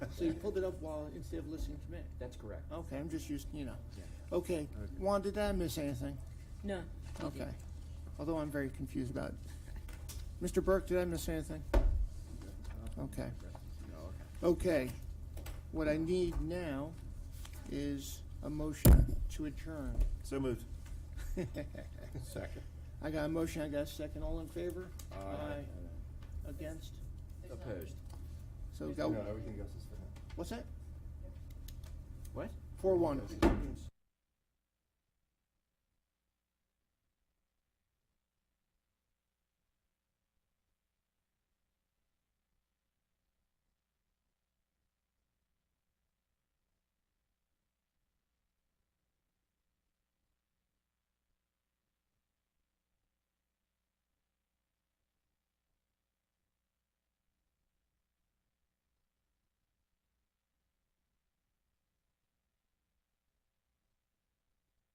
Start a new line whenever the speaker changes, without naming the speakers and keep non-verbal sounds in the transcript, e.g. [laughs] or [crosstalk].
So you pulled it up while, instead of listening to me?
That's correct.
Okay, I'm just used, you know.
Yeah.
Okay, Juan, did I miss anything?
No. you
Okay.
didn't.
Although I'm very confused about it. Mr. Burke, did I miss anything? Okay. Okay. What I need now is a motion to adjourn.
So
[laughs]
moved.
Second.
I got a motion, I got a second. All in favor?
Aye.
Against?
Opposed.
So go,
everything else is for him.
what's that?
What?
Four one.